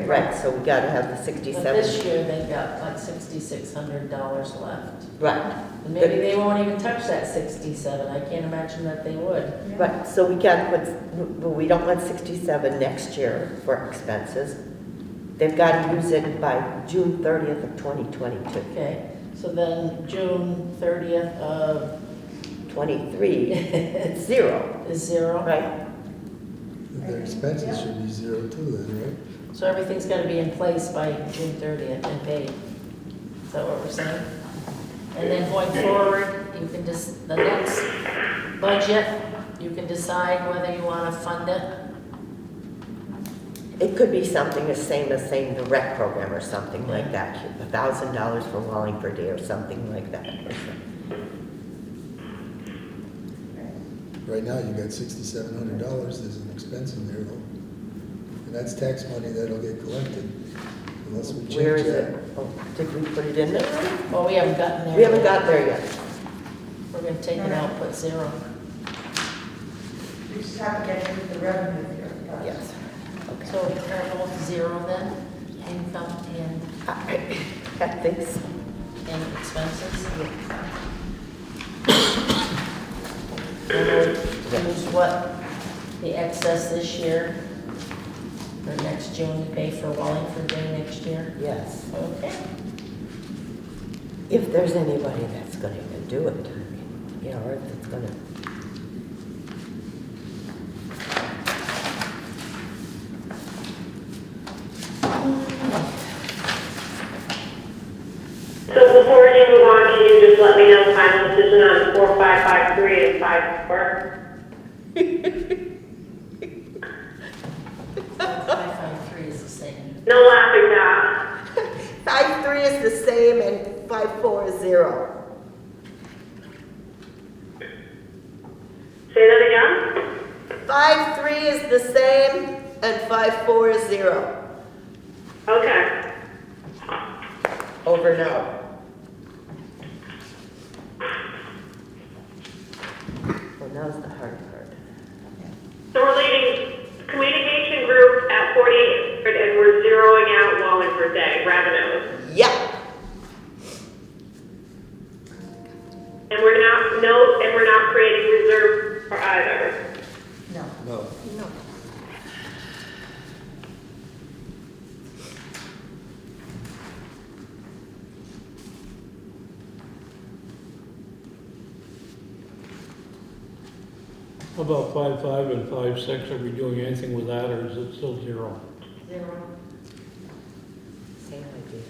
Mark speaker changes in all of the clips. Speaker 1: right, so we gotta have the
Speaker 2: But
Speaker 1: sixty-seven,
Speaker 2: this year, they've got like sixty-six hundred dollars left.
Speaker 1: right,
Speaker 2: And maybe they won't even touch that sixty-seven, I can't imagine that they would.
Speaker 1: right, so we gotta put, but we don't want sixty-seven next year for expenses. They've gotta use it by June thirtieth of twenty twenty-two.
Speaker 2: Okay, so then June thirtieth uh, of
Speaker 1: Twenty-three, it's zero,
Speaker 2: is zero,
Speaker 1: right?
Speaker 3: Their expenses should be zero too then, right?
Speaker 2: so everything's gotta be in place by June thirtieth and paid. Is that what we're saying? And then going forward, you can just, the next budget, you can decide whether you wanna fund it.
Speaker 1: It could be something the same as saying the rec program or something like that, a thousand dollars for Wallingford Day or something like that.
Speaker 3: Right now, you got sixty-seven hundred dollars as an expense in there though. And that's tax money that'll get collected unless we
Speaker 1: Where
Speaker 3: change
Speaker 1: is it?
Speaker 3: that.
Speaker 1: Oh, Did we put it in there?
Speaker 2: Well, we haven't gotten there.
Speaker 1: We haven't
Speaker 2: yet.
Speaker 1: got there yet.
Speaker 2: We're gonna take it out, put zero.
Speaker 4: We just have to get into the revenue here. first.
Speaker 1: Yes.
Speaker 2: So we're both zero then, income and,
Speaker 1: I I think so.
Speaker 2: and expenses? And we'll Use what, the excess this year, or next June to pay for Wallingford Day next year?
Speaker 1: Yes.
Speaker 2: Okay.
Speaker 1: If there's anybody that's gonna even do it, I mean, you know, or if it's gonna.
Speaker 5: So before you move on, can you just let me know the final decision on four, five, five, three, and five, four?
Speaker 2: Five five three is the same.
Speaker 5: No laughing now.
Speaker 1: Five three is the same and five four is zero.
Speaker 5: Say that again?
Speaker 1: Five three is the same and five four is zero.
Speaker 5: Okay.
Speaker 1: Over now. Well, now's the hard part.
Speaker 5: So we're leaving communication group at 4800 and we're zeroing out Wallingford Day revenues.
Speaker 1: Yeah.
Speaker 5: And we're not, no, and we're not creating reserve for either.
Speaker 4: No.
Speaker 3: No,
Speaker 6: How about five five and five six? Are we doing anything with that, or is it still zero?
Speaker 2: Zero.
Speaker 1: Same idea.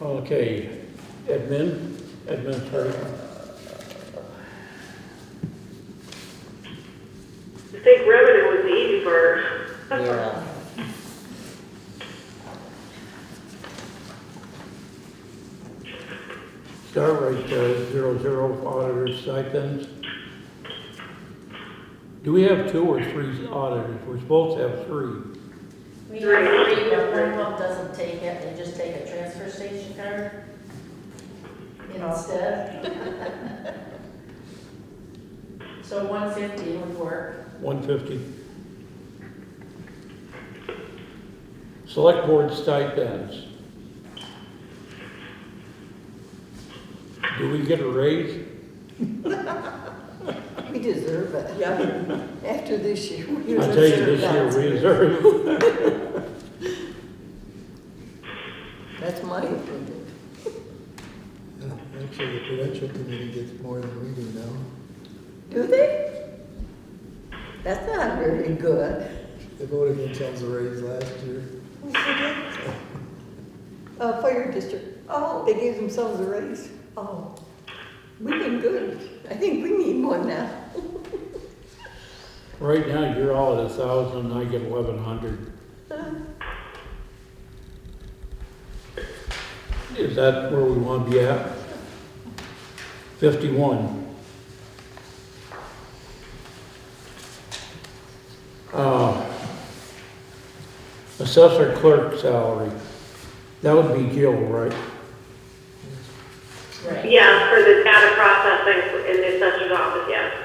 Speaker 6: Okay, admin, administrative,
Speaker 5: I think revenue was the easy part.
Speaker 1: Yeah.
Speaker 6: start right there, zero zero auditor stipends. Do we have two or three auditors? We're supposed to have three.
Speaker 2: We have three, but one of them doesn't take it, they just take a transfer station card instead. So one fifty would work.
Speaker 6: One fifty. Select board stipends. Do we get a raise?
Speaker 7: We deserve it.
Speaker 1: Yeah.
Speaker 7: After this year. we
Speaker 6: I tell you,
Speaker 7: deserve
Speaker 6: this year
Speaker 7: that.
Speaker 6: we deserve.
Speaker 7: That's my opinion.
Speaker 3: Yeah, actually, the prudential committee gets more than we do now.
Speaker 7: Do they? That's not very good.
Speaker 3: They voted against us a raise last year.
Speaker 7: Uh, fire district, oh, they gave themselves a raise. Oh, we've been good. I think we need one now.
Speaker 6: Right now, you're all at a thousand, I get eleven hundred. Is that where we want to be at? Fifty-one. Uh, Assessor clerk salary, that would be Gil, right?
Speaker 2: Right.
Speaker 5: Yeah, for the data processing in the assessor's office, yeah.